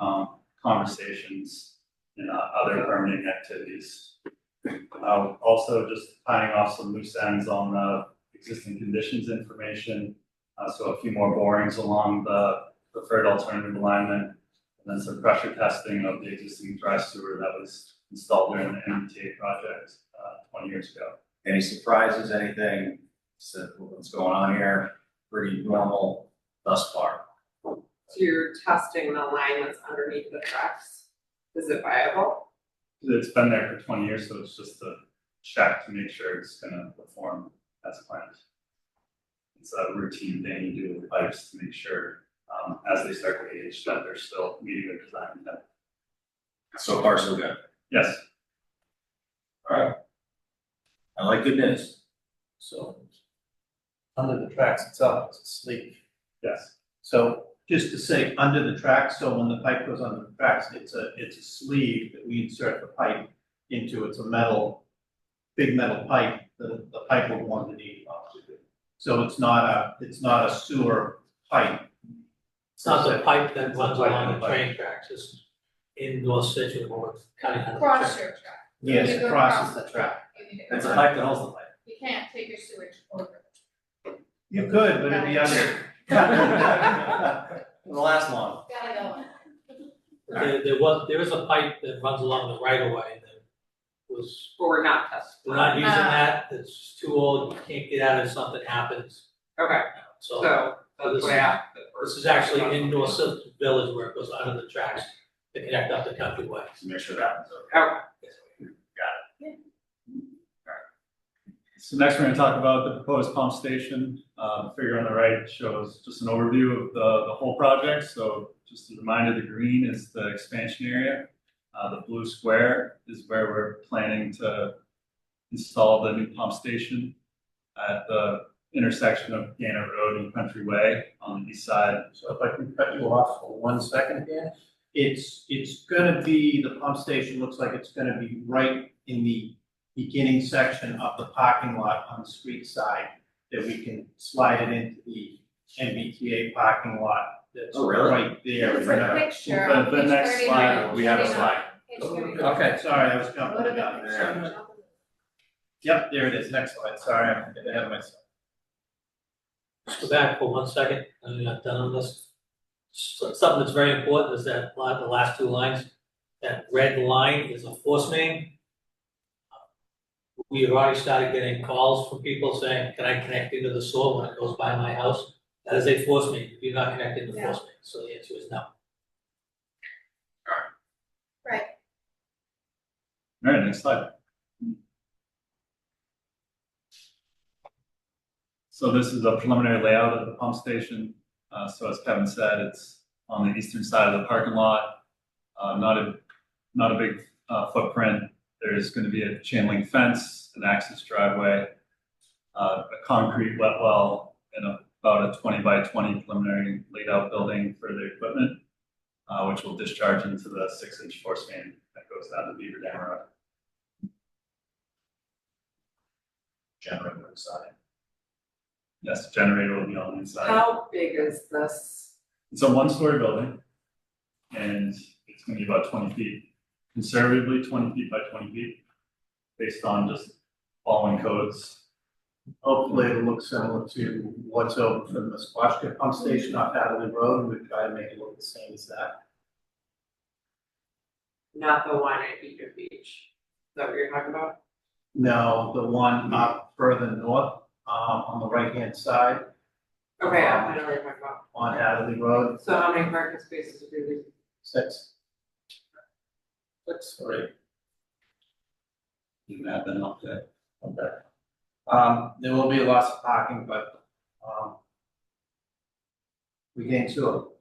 um, conversations and uh, other permitting activities. Uh, also just tying off some loose ends on the existing conditions information. Uh, so a few more borings along the preferred alternative alignment. And then some pressure testing of the existing dry sewer that was installed during the MTA project, uh, twenty years ago. Any surprises, anything, so what's going on here, pretty normal thus far. So you're testing the line that's underneath the tracks, is it viable? It's been there for twenty years, so it's just a check to make sure it's gonna perform as planned. It's a routine thing you do with pipes to make sure, um, as they start to age, that they're still meeting their design intent. So far, so good. Yes, Alright. I like good news. So. Under the tracks itself, it's a sleeve. yes, So just to say, under the tracks, so when the pipe goes under the tracks, it's a, it's a sleeve that we insert the pipe into. It's a metal, big metal pipe, the, the pipe will go underneath. obviously. So it's not a, it's not a sewer pipe. It's not the pipe that It's not runs pipe, along the the pipe. train tracks, it's in North Situate or kind of. Cross your track. Yes, You it go crosses the track. You need to It's a cross. pipe that holds the pipe. You can't take your sewage over. You could, but it'd be under. It'll last long. Gotta go in. There, there was, there is a pipe that runs along the right of way that was, But we're not testing. we're not using Ah. that, it's too old, you can't get out if something happens. Okay, So so that's what I asked. the this first is actually question. in North Situate Village where it goes under the tracks to connect up the countryway. Just make sure that one's okay. Okay, so next we're gonna talk about the proposed pump station. Uh, the figure on the right shows just an overview of the, the whole project, so just a reminder, the green is the expansion area. Uh, the blue square is where we're planning to install the new pump station at the intersection of Gannett Road and Country Way on the east side. So if I can cut you off for one second here, it's, it's gonna be, the pump station looks like it's gonna be right in the beginning section of the parking lot on the street side, that we can slide it into the MBTA parking lot that's Oh, really? right there. It's a picture on The- the page next 39, slide, we have a 39, slide. page Okay, sorry, I was 39. jumping. the gun. What about- Yep, there it is, next slide, sorry, I'm getting ahead of myself. Just Go back for one second, I'm not done on this. So- Something that's very important is that, li- the last two lines, that red line is a force main. We have already started getting calls from people saying, can I connect into the sewer when it goes by my house? That is a force main, you're not connected to the force main, so the answer is no. Right, All right, next slide. So this is a preliminary layout of the pump station. Uh, so as Kevin said, it's on the eastern side of the parking lot. Uh, not a, not a big, uh, footprint. There's gonna be a chain link fence, an access driveway, uh, a concrete wet well, and about a twenty by twenty preliminary laid out building for the equipment, uh, which will discharge into the six inch force main that goes down to Beaver Dam Road. Generator inside. Yes, the generator will be on the inside. How big is this? It's a one-story building. And it's gonna be about twenty feet, conservatively twenty feet by twenty feet, based on just following codes. Hopefully it'll look similar to what's over for the Musquashka pump station off Hadley Road, and we try to make it look the same as that. Not the one at Eager Beach, is that what you're talking about? No, the one up further north, um, on the right-hand side Okay, I know what you're talking about. on Hadley Road, So how many parking spaces do we, six. Six, three. You can add that up there. Okay. Um, there will be lots of parking, but, um, we gain two.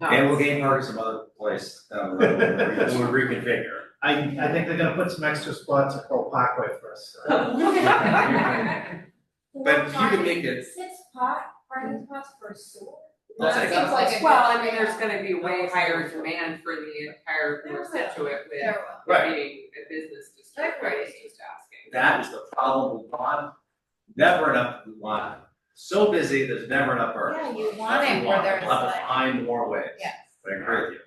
no, And we'll gain parking some other place. down the road. We'll reconfigure. I, I think they're gonna put some extra spots at Pearl Parkway for us. But you can make Four it- parking- Six pot, parking spots for sewer? I'll take That seems like a. Well, I mean, there's gonna be way higher demand for the entire North Situate with There Right. it being a business district, I was just asking. That is the problem with Lon. Never enough Lon. So busy, there's never enough will. Earth. Yeah, you want That's it the where one. there's We'll have to like, find more ways. yes. I agree with you.